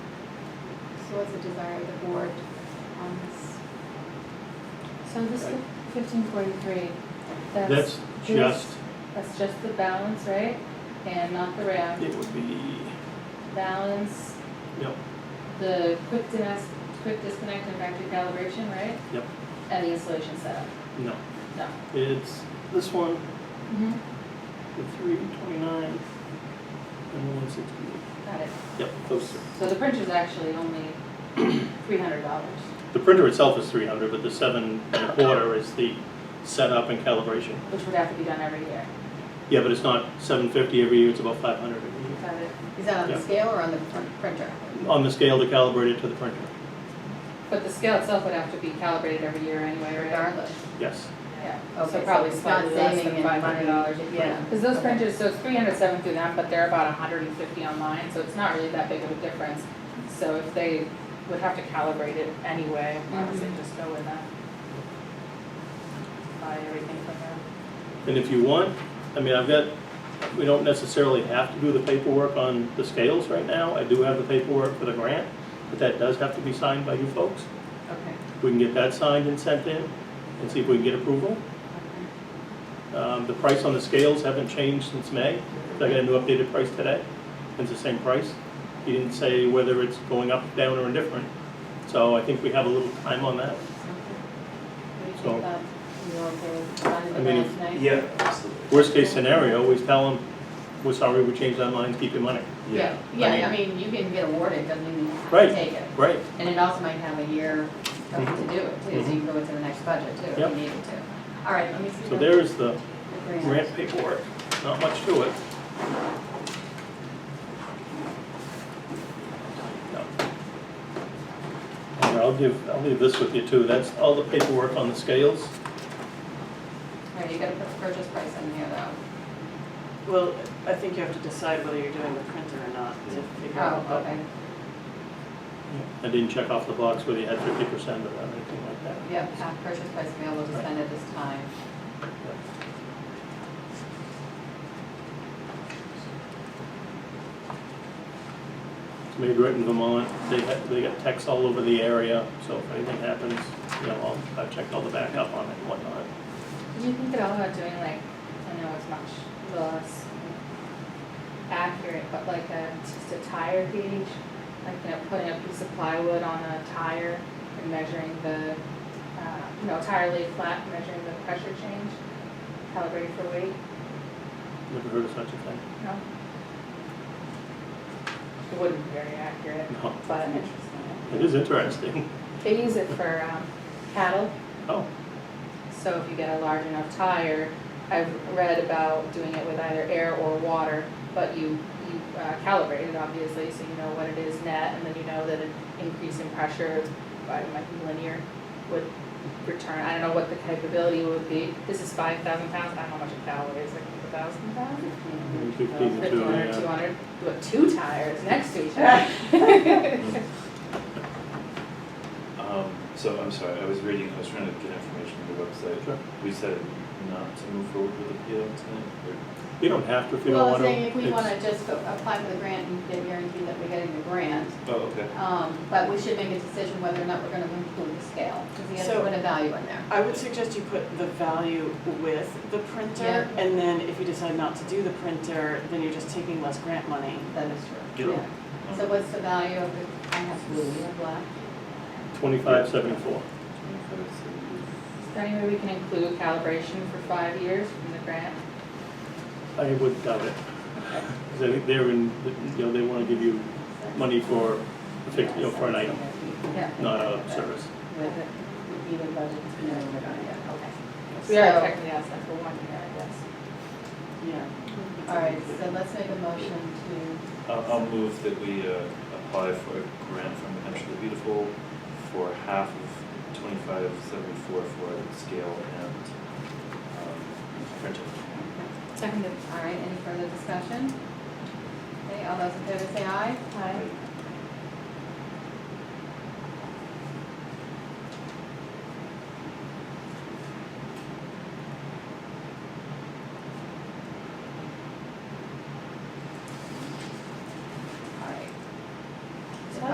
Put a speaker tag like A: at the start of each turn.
A: So what's the desire of the board on this?
B: So this fifteen forty-three,
C: That's
B: that's,
C: just,
B: that's just the balance, right? And not the RAM,
C: it would be,
B: balance,
C: yep,
B: the quick dis, quick disconnect and factory calibration, right?
C: Yep.
B: And the installation setup,
C: no,
B: no.
C: it's this one,
B: Mm-hmm.
C: the three twenty-nine, and the one sixty-eight.
B: Got it.
C: Yep, those three.
B: So the printer's actually only three hundred dollars.
C: The printer itself is three hundred, but the seven and a quarter is the setup and calibration.
B: Which would have to be done every year.
C: Yeah, but it's not seven fifty every year, it's about five hundred every year.
B: Got it.
A: Is that on
C: Yeah.
A: the scale or on the pr- printer?
C: On the scale to calibrate it to the printer,
B: But the scale itself would have to be calibrated every year anyway, right?
A: Regardless.
C: yes.
B: Yeah.
A: Okay,
B: So probably
A: it's not
B: slightly less
A: saving
B: than
A: any
B: five hundred dollars.
A: money. Yeah.
B: Because those
A: Okay.
B: printers, so it's three hundred seven through them, but they're about hundred and fifty online, so it's not really that big of a difference. So if they would have to calibrate it anyway, I would say just go with that. Buy everything from them.
C: And if you want, I mean, I've got, we don't necessarily have to do the paperwork on the scales right now. I do have the paperwork for the grant, but that does have to be signed by you folks.
B: Okay.
C: We can get that signed and sent in and see if we can get approval. Um, The price on the scales haven't changed since May. I got a new updated price today. It's the same price. He didn't say whether it's going up, down, or indifferent. So I think we have a little time on that.
B: What do you think
C: So-
B: about, you okay with signing the
C: I mean,
B: grant tonight?
D: Yeah, absolutely.
C: Worst case scenario, we tell them, we're sorry, we changed our minds, keep your money.
D: Yeah.
A: Yeah, I mean, you can get awarded, doesn't mean you have
C: Right.
A: to take it.
C: Right.
A: And it also might have a year of- to
C: Mhm.
A: do it too, so you can go into the next budget too, if
C: Yep.
A: you needed to. All right, let me see.
C: So
A: the-
C: there is the
A: the grant.
C: grant paperwork, not much to it. No. And I'll give, I'll leave this with you too, that's all the paperwork on the scales.
A: All right, you gotta put the purchase price in here though.
E: Well, I think you have to decide whether you're doing the printer or not to figure out.
A: Oh, okay,
C: I didn't check off the box whether you had fifty percent or anything like that.
A: yep, half purchase price available to spend at this time.
C: It's made right in Vermont, they had, they got texts all over the area, so if anything happens, you know, I'll, I've checked all the backup on it and whatnot.
B: Do you think at all about doing like, I know it's much less accurate, but like a, just a tire gauge? Like, you know, putting a piece of plywood on a tire and measuring the, uh, you know, tire lay flat, measuring the pressure change, calibrated for weight,
C: Never heard of such a thing.
B: no? It wouldn't be very accurate,
C: No,
B: but interesting.
C: it is interesting.
B: They use it for um, cattle
C: Oh,
B: So if you get a large enough tire, I've read about doing it with either air or water, but you, you uh, calibrate it obviously, so you know what it is net, and then you know that an increase in pressure by, it might be linear would return, I don't know what the capability would be. This is five thousand pounds, I don't know how much a cow weighs, like a thousand pounds?
C: fifteen to two,
B: Fifteen hundred, two
C: yeah.
B: hundred, but two tires next to each other.
D: Um, so I'm sorry, I was reading, I was trying to get information from the website.
C: Sure.
D: We said not to move forward with appeal tonight,
C: You don't have to if you don't
A: Well,
C: want
A: I'm
C: to.
A: saying if we wanna just go apply for the grant and get guaranteed that we're getting the grant,
D: or? Oh, okay.
A: um, but we should make a decision whether or not we're gonna include the scale, because you have to
E: So-
A: put a value in there.
E: I would suggest you put the value with the printer,
A: Yeah.
E: and then if you decide not to do the printer, then you're just taking less grant money.
A: That is
D: Get
A: true.
D: it.
A: Yeah. So what's the value of the, I have blue, you have black?
C: Twenty-five seventy-four.
D: Twenty-five, so
B: Is there any way we can include calibration for five years from the grant?
C: I would doubt it. Because I think they're in, you know, they want to give you money for, a fix- you know, for an item,
B: Yeah.
C: not a service.
A: With it, even budgets, you know, we're gonna get, okay.
B: We are
A: So-
B: technically outside for one year, I guess.
E: Yeah.
A: All right, so let's make a motion to,
D: I'll, I'll move that we, uh, apply for a grant from the Hampshire the Beautiful for half of twenty-five seventy-four for scale and, um, printer.
B: Second.
A: all right, any further discussion? Okay, all those in favor say aye?
B: Hi.
D: Like,